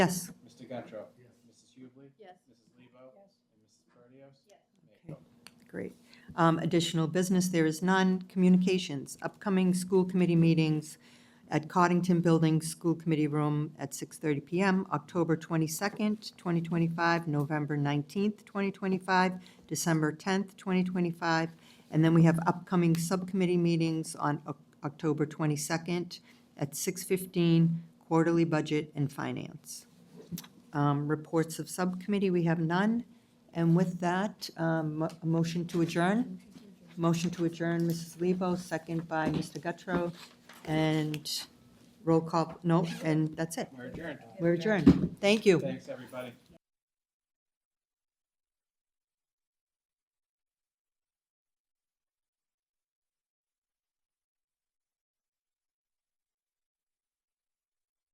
Yes. Mr. Guttrow. Yes. Mrs. Hubley. Yes. Mrs. Lebo. Yes. And Mrs. Perdios. Yes. Mayor Okay. Copeland. Great. Um, Additional business, there is none. Communications, upcoming school committee meetings at Coddington Building School Committee Room at 6:30 PM, October 22nd, 2025, November 19th, 2025, December 10th, 2025, and then we have upcoming subcommittee meetings on Oc- October 22nd at 6:15, quarterly budget and finance. Um, Reports of subcommittee, we have none. And with that, um, mo- a motion to adjourn. Motion to adjourn, Mrs. Lebo, second by Mr. Guttrow. And roll call, no, and that's it. We're adjourned. We're adjourned. Thank you. Thanks, everybody.